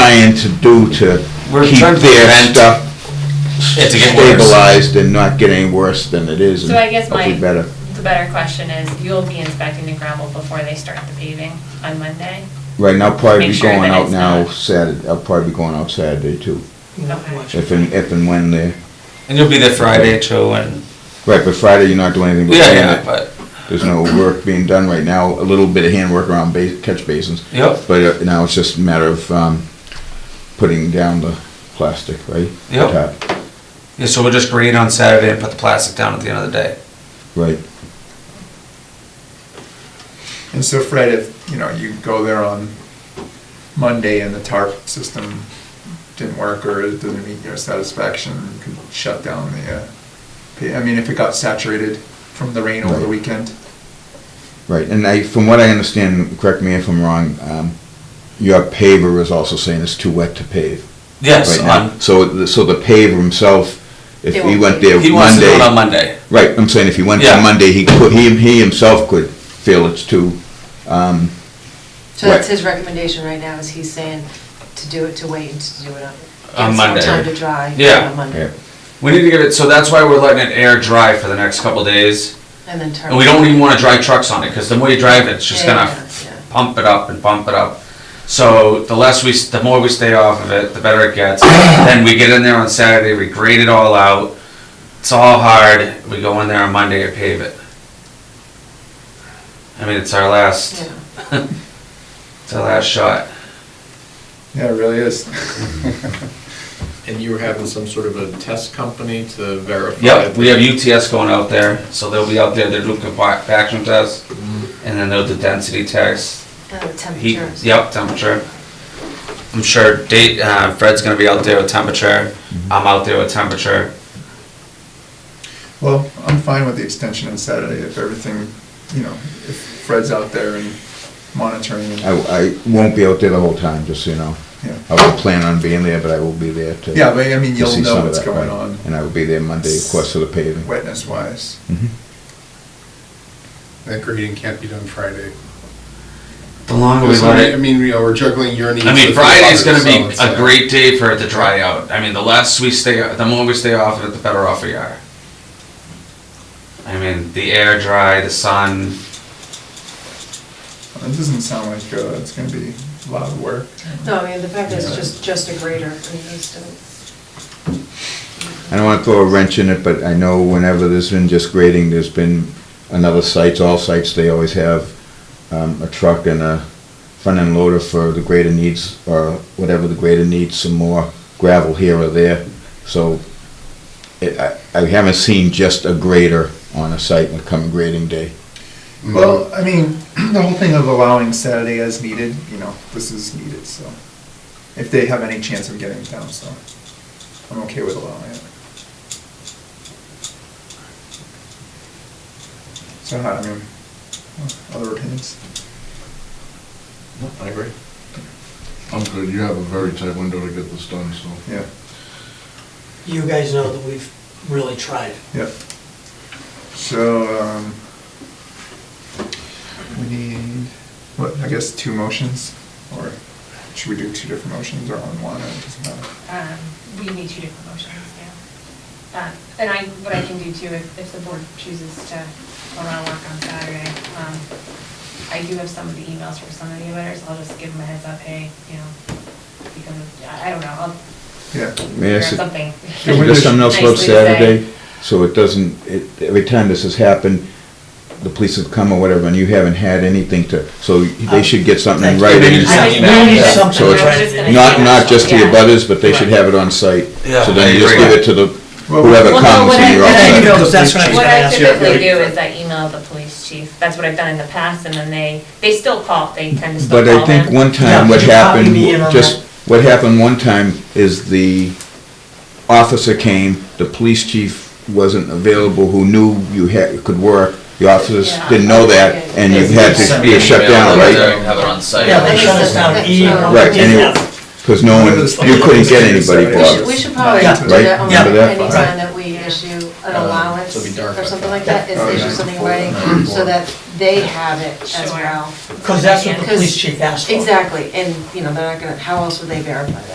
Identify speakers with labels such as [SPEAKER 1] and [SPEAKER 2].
[SPEAKER 1] trying to do to
[SPEAKER 2] We're
[SPEAKER 1] keep
[SPEAKER 2] trying to
[SPEAKER 1] their
[SPEAKER 2] prevent
[SPEAKER 1] stuff
[SPEAKER 2] it to get worse.
[SPEAKER 1] stabilized and not get any worse than it is.
[SPEAKER 3] So
[SPEAKER 1] and
[SPEAKER 3] I guess my,
[SPEAKER 1] hopefully better.
[SPEAKER 3] the better question is, you'll be inspecting the gravel before they start the paving on Monday?
[SPEAKER 1] Right now, probably
[SPEAKER 3] Make
[SPEAKER 1] be
[SPEAKER 3] sure
[SPEAKER 1] going
[SPEAKER 3] that
[SPEAKER 1] out
[SPEAKER 3] it's
[SPEAKER 1] now
[SPEAKER 3] not-
[SPEAKER 1] Saturday, I'll probably be going out Saturday too,
[SPEAKER 3] Okay.
[SPEAKER 1] if and, if and when they,
[SPEAKER 2] And you'll be there Friday, Joe, and,
[SPEAKER 1] right, but Friday you're not doing anything. but
[SPEAKER 2] yeah,
[SPEAKER 1] hand
[SPEAKER 2] yeah,
[SPEAKER 1] it.
[SPEAKER 2] but,
[SPEAKER 1] There's no work being done right now, a little bit of handwork around ba- catch basins,
[SPEAKER 2] yep,
[SPEAKER 1] but uh, now it's just a matter of, um, putting down the plastic, right? The
[SPEAKER 2] Yep.
[SPEAKER 1] top,
[SPEAKER 2] yeah, so we'll just grade on Saturday and put the plastic down at the end of the day.
[SPEAKER 1] Right,
[SPEAKER 4] And so Fred, if, you know, you go there on Monday and the tarp system didn't work or it doesn't meet your satisfaction, you could shut down the, uh, pa- I mean, if it got saturated from the rain over the
[SPEAKER 1] Right.
[SPEAKER 4] weekend.
[SPEAKER 1] right, and I, from what I understand, correct me if I'm wrong, um, your paver is also saying it's too wet to pave.
[SPEAKER 2] Yes,
[SPEAKER 1] right now.
[SPEAKER 2] on,
[SPEAKER 1] So, the- so the paver himself, if
[SPEAKER 5] They
[SPEAKER 1] he
[SPEAKER 5] won't
[SPEAKER 1] went
[SPEAKER 5] pave.
[SPEAKER 1] there Monday.
[SPEAKER 2] he wants to do it on Monday.
[SPEAKER 1] Right, I'm saying if he went
[SPEAKER 2] Yeah.
[SPEAKER 1] there Monday, he could, he, he himself could feel it's too, um,
[SPEAKER 5] So that's
[SPEAKER 1] Right.
[SPEAKER 5] his recommendation right now, is he's saying to do it, to wait and to do it on.
[SPEAKER 2] On
[SPEAKER 5] give
[SPEAKER 2] Monday.
[SPEAKER 5] some time to dry.
[SPEAKER 2] Yeah.
[SPEAKER 5] On Monday.
[SPEAKER 1] yeah,
[SPEAKER 2] We need to give it, so that's why we're letting it air dry for the next couple days.
[SPEAKER 5] And then turn.
[SPEAKER 2] And we don't even wanna drive trucks on it, cause the more you drive it, it's just
[SPEAKER 5] Yeah,
[SPEAKER 2] gonna
[SPEAKER 5] yeah, yeah.
[SPEAKER 2] pump it up and pump it up. So the less we, s- the more we stay off of it, the better it gets. Then we get in there on Saturday, we grade it all out. It's all hard. We go in there on Monday and pave it. I mean, it's our last,
[SPEAKER 5] Yeah.
[SPEAKER 2] it's our last shot.
[SPEAKER 4] Yeah, it really is.
[SPEAKER 6] And you were having some sort of a test company to verify?
[SPEAKER 2] Yep, we have UTS going out there, so they'll be out there, they'll do compaction tests, and then they'll do density tests,
[SPEAKER 5] And the
[SPEAKER 2] heat,
[SPEAKER 5] temperatures.
[SPEAKER 2] yep, temperature. I'm sure date, uh, Fred's gonna be out there with temperature,
[SPEAKER 1] Mm-hmm.
[SPEAKER 2] I'm out there with temperature.
[SPEAKER 4] Well, I'm fine with the extension on Saturday if everything, you know, if Fred's out there and monitoring and,
[SPEAKER 1] I, I won't be out there the whole time, just so you know.
[SPEAKER 4] yeah.
[SPEAKER 1] I will plan on being there, but I will be there to.
[SPEAKER 4] Yeah, but I mean,
[SPEAKER 1] to
[SPEAKER 4] you'll
[SPEAKER 1] see
[SPEAKER 4] know
[SPEAKER 1] some of
[SPEAKER 4] what's
[SPEAKER 1] that, right.
[SPEAKER 4] going on
[SPEAKER 1] And I will be there Monday, of course, for the paving.
[SPEAKER 4] wetness wise.
[SPEAKER 1] Mhm.
[SPEAKER 7] That grading can't be done Friday.
[SPEAKER 2] The longer we
[SPEAKER 7] Because,
[SPEAKER 2] let
[SPEAKER 7] I
[SPEAKER 2] it,
[SPEAKER 7] mean, we are- we're juggling your needs.
[SPEAKER 2] I mean,
[SPEAKER 7] with
[SPEAKER 2] Friday's
[SPEAKER 7] the
[SPEAKER 2] gonna
[SPEAKER 7] others,
[SPEAKER 2] be
[SPEAKER 7] so
[SPEAKER 2] a
[SPEAKER 7] it's, uh,
[SPEAKER 2] great day for it to dry out, I mean, the less we stay, the more we stay off of it, the better off we are. I mean, the air dry, the sun,
[SPEAKER 4] It doesn't sound like uh, it's gonna be a lot of work.
[SPEAKER 5] No, I mean, the fact is,
[SPEAKER 4] Yeah.
[SPEAKER 5] just, just a grader, I mean, he's doing.
[SPEAKER 1] I don't wanna throw a wrench in it, but I know whenever there's been just grading, there's been another sites, all sites, they always have, um, a truck and a front end loader for the grader needs, or whatever the grader needs, some more gravel here or there. So, it, I, I haven't seen just a grader on a site on come grading day.
[SPEAKER 7] mm,
[SPEAKER 4] Well, I mean, the whole thing of allowing Saturday as needed, you know, this is needed, so. If they have any chance of getting it down, so I'm okay with allowing it. So, how- I mean, oh, other opinions?
[SPEAKER 6] No, I agree.
[SPEAKER 8] I'm good, you have a very tight window to get this done, so.
[SPEAKER 4] Yeah,
[SPEAKER 9] you guys know that we've really tried.
[SPEAKER 4] yeah. So, um, we need, what, I guess two motions? Or should we do two different motions or on one, it doesn't matter?
[SPEAKER 3] Um, We need two different motions now. Uh, And I, what I can do too, if, if the board chooses to go around work on Saturday, um, I do have some of the emails from some of the letters, I'll just give them a heads up, hey, you know, because, of- I I don't know, I'll
[SPEAKER 4] Yeah.
[SPEAKER 1] May I
[SPEAKER 3] figure out
[SPEAKER 1] su-
[SPEAKER 3] something.
[SPEAKER 1] Is there something else about
[SPEAKER 3] Nicely to say.
[SPEAKER 1] Saturday? So it doesn't, it, every time this has happened, the police have come or whatever, and you haven't had anything to, so they should get something in
[SPEAKER 9] Um, thank you.
[SPEAKER 1] writing.
[SPEAKER 2] Maybe just
[SPEAKER 3] Oh. I
[SPEAKER 2] an
[SPEAKER 3] was-
[SPEAKER 2] email.
[SPEAKER 9] We need
[SPEAKER 3] yeah.
[SPEAKER 9] something
[SPEAKER 3] I was
[SPEAKER 1] to write.
[SPEAKER 3] just gonna
[SPEAKER 1] Not,
[SPEAKER 3] say
[SPEAKER 1] not
[SPEAKER 3] that.
[SPEAKER 1] just to your
[SPEAKER 3] Yeah.
[SPEAKER 1] butters, but they should have it on site.
[SPEAKER 2] Yeah,
[SPEAKER 1] So
[SPEAKER 2] I
[SPEAKER 1] then you just
[SPEAKER 2] agree.
[SPEAKER 1] give it to the,
[SPEAKER 4] Well,
[SPEAKER 1] whoever
[SPEAKER 3] well,
[SPEAKER 1] comes
[SPEAKER 3] what
[SPEAKER 1] and
[SPEAKER 3] I-
[SPEAKER 1] you're
[SPEAKER 3] what I
[SPEAKER 1] all
[SPEAKER 3] do
[SPEAKER 1] set.
[SPEAKER 9] That's what I was
[SPEAKER 3] What
[SPEAKER 9] gonna
[SPEAKER 3] I
[SPEAKER 9] ask you.
[SPEAKER 3] typically do is I email the police chief, that's what I've done in the past, and then they, they still call, they tend to still
[SPEAKER 1] But I
[SPEAKER 3] call
[SPEAKER 1] think
[SPEAKER 3] them.
[SPEAKER 1] one time
[SPEAKER 9] Yeah,
[SPEAKER 1] what
[SPEAKER 9] you copy
[SPEAKER 1] happened,
[SPEAKER 9] me in on
[SPEAKER 1] just, what happened one time is the officer came, the police chief wasn't available, who knew you had, could work, the officers
[SPEAKER 3] Yeah.
[SPEAKER 1] didn't know that, and you had to
[SPEAKER 2] send
[SPEAKER 1] be
[SPEAKER 2] me an
[SPEAKER 1] shut
[SPEAKER 2] email,
[SPEAKER 1] down,
[SPEAKER 2] I'll
[SPEAKER 1] right?
[SPEAKER 2] there and have it on site.
[SPEAKER 9] Yeah, they shut us down,
[SPEAKER 5] That's
[SPEAKER 9] E,
[SPEAKER 5] not-
[SPEAKER 1] Right, and it-
[SPEAKER 9] F.
[SPEAKER 1] Because no one, you couldn't get anybody
[SPEAKER 5] We should-
[SPEAKER 1] bothered.
[SPEAKER 5] We should probably do
[SPEAKER 9] Yeah.
[SPEAKER 5] that on
[SPEAKER 9] Right? Yeah.
[SPEAKER 5] any
[SPEAKER 1] Right.
[SPEAKER 5] time that we issue an allowance
[SPEAKER 6] it'll be dark
[SPEAKER 5] or
[SPEAKER 6] by
[SPEAKER 5] something
[SPEAKER 6] then.
[SPEAKER 5] like that, is
[SPEAKER 4] Oh, yeah.
[SPEAKER 5] issue something in writing, so that they have it as
[SPEAKER 3] Sure.
[SPEAKER 5] well.
[SPEAKER 9] Because that's what the
[SPEAKER 5] Because-
[SPEAKER 9] police chief asked for.
[SPEAKER 5] Exactly, and, you know, they're not gonna, how else would they verify that?